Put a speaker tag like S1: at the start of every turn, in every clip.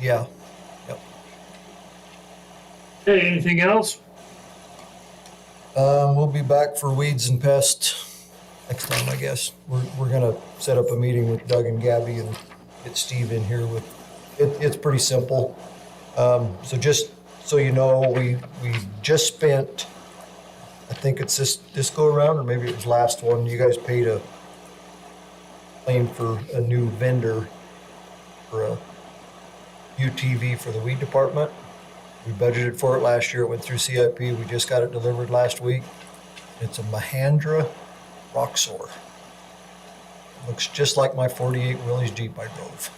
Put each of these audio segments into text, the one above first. S1: Yeah.
S2: Okay, anything else?
S1: Um, we'll be back for weeds and pests next time, I guess. We're, we're gonna set up a meeting with Doug and Gabby and get Steve in here with, it, it's pretty simple. Um, so just so you know, we, we just spent, I think it's this, this go around, or maybe it was last one, you guys paid a claim for a new vendor for a UTV for the weed department. We budgeted for it last year. It went through CIP. We just got it delivered last week. It's a Mahandra Roxor. Looks just like my 48 Willys Jeep I drove.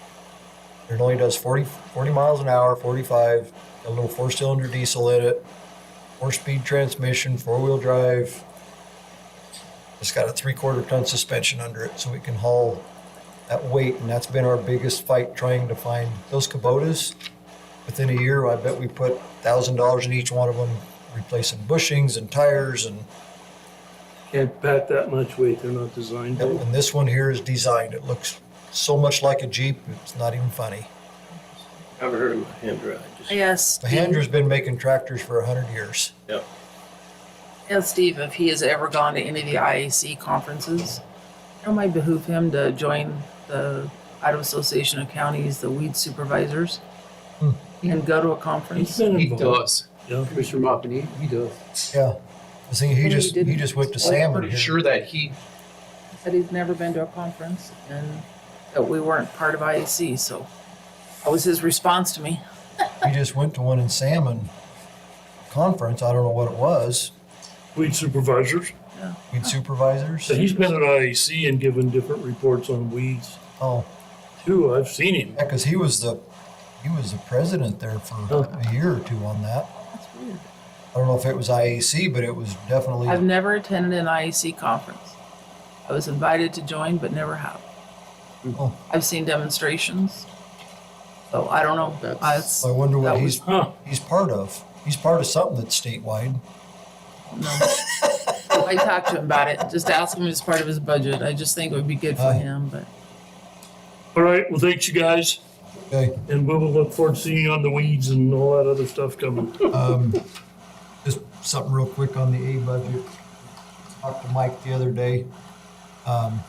S1: It only does 40, 40 miles an hour, 45, got a little four cylinder diesel in it, four speed transmission, four wheel drive. It's got a three quarter ton suspension under it so it can haul that weight. And that's been our biggest fight trying to find those Kubotas within a year, I bet we put thousand dollars in each one of them, replacing bushings and tires and,
S2: Can't pack that much weight, they're not designed to.
S1: and this one here is designed. It looks so much like a Jeep, it's not even funny.
S3: Never heard of Mahindra. I just,
S4: Yes.
S1: Mahindra's been making tractors for a hundred years.
S3: yeah.
S4: Ask Steve if he has ever gone to any of the IAC conferences. It might behoove him to join the Idaho Association of Counties, the weed supervisors,
S1: Hmm.
S4: and go to a
S2: He's
S4: conference.
S2: been
S5: He
S2: involved.
S5: does.
S2: Yeah.
S5: Commissioner Mopany, he does.
S1: Yeah. The thing, he
S4: And he
S1: just, he
S4: didn't.
S1: just went to
S4: Well, I'm
S5: I'm
S1: Salmon
S5: pretty
S1: here.
S5: sure that he,
S4: He said he's never been to a conference and that we weren't part of IAC, so that was his response to me.
S1: He just went to one in Salmon conference. I don't know what it was.
S2: Weed supervisors.
S1: Weed supervisors.
S2: So he's been at IAC and given different reports on weeds
S1: Oh,
S2: too. I've seen him.
S1: yeah, cause he was the, he was the president there for a year or two on that.
S4: That's weird.
S1: I don't know if it was IAC, but it was definitely.
S4: I've never attended an IAC conference. I was invited to join, but never have.
S1: Oh.
S4: I've seen demonstrations. So I don't know.
S5: That's-
S4: I- it's-
S1: I wonder what
S4: That
S1: he's
S2: Huh,
S1: he's part of. He's part of something that's statewide.
S4: No. I talked to him about it, just ask him as part of his budget. I just think it would be good for
S1: Aye.
S4: him, but
S2: all right, well, thanks you guys,
S1: Okay.
S2: and we will look forward to seeing you on the weeds and all that other stuff coming.
S1: Um, just something real quick on the A budget. Talked to Mike the other day. Um,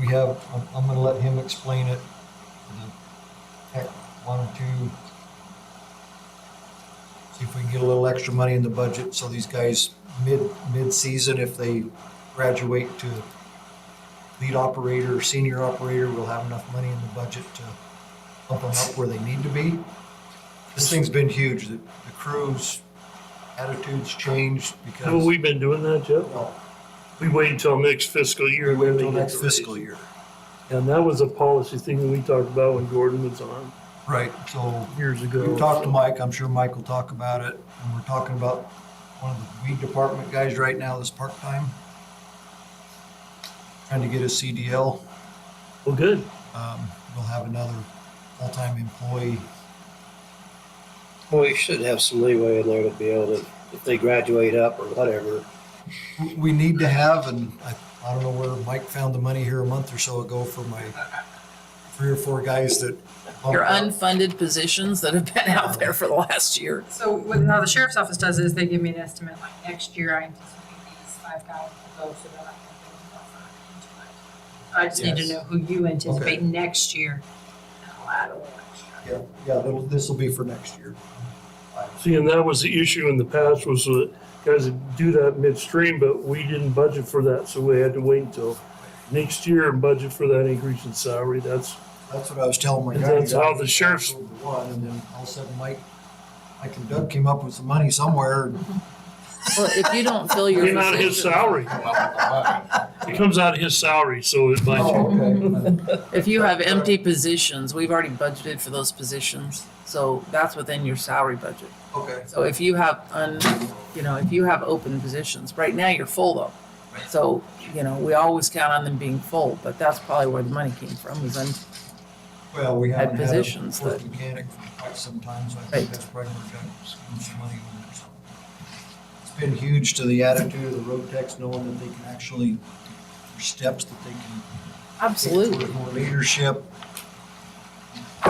S1: we have. I'm, I'm going to let him explain it. The Tech one two. See if we can get a little extra money in the budget so these guys mid mid season if they graduate to lead operator or senior operator will have enough money in the budget to bump them up where they need to be. This thing's been huge. The, the crew's attitudes changed because
S2: Haven't we been doing that, Jeff?
S1: no,
S2: We wait until next fiscal year.
S1: we wait
S2: and then
S1: until
S2: they get
S1: next
S2: the raise.
S1: fiscal year.
S2: And that was a policy thing that we talked about when Gordon was on
S1: Right. So
S2: years ago.
S1: you talk to Mike. I'm sure Mike will talk about it. And we're talking about one of the weed department guys right now that's part time, trying to get his CDL.
S2: Well, good.
S1: Um, we'll have another full time employee.
S3: Well, we should have some leeway in there to be able to, if they graduate up or whatever.
S1: We- We need to have, and I, I don't know where Mike found the money here a month or so ago for my three or four guys that. bumped
S4: your
S1: up.
S4: unfunded positions that have been out there for the last year.
S6: So what now the sheriff's office does is they give me an estimate, like next year I anticipate these five thousand will go so that I can build a buffer into it. I just need to
S1: Yes.
S6: know who you anticipate next year. and I'll add a little extra.
S1: Yeah, yeah, that'll, this'll be for next year.
S2: See, and that was the issue in the past was that guys would do that midstream, but we didn't budget for that, so we had to wait until next year and budget for that increase in salary. That's
S1: That's what I was telling my
S2: And
S1: guy.
S2: that's how the sheriff's-
S1: One, and then all of a sudden Mike, Mike and Doug came up with some money somewhere.
S4: Well, if you don't fill your
S2: came out of his
S4: position,
S2: salary. It comes out of his salary, so it might.
S1: Oh, okay.
S4: if you have empty positions, we've already budgeted for those positions. So that's within your salary budget.
S1: Okay.
S4: So if you have un, you know, if you have open positions, right now you're full though. So, you know, we always count on them being full, but that's probably where the money came from, was un,
S1: Well, we haven't had a
S4: positions
S1: fourth
S4: that-
S1: mechanic for quite some time, so I
S4: Right.
S1: think that's probably where Doug scooped some money over. So It's been huge to the attitude of the road techs, knowing that they can actually, there's steps that they can
S4: absolutely.
S1: More leadership,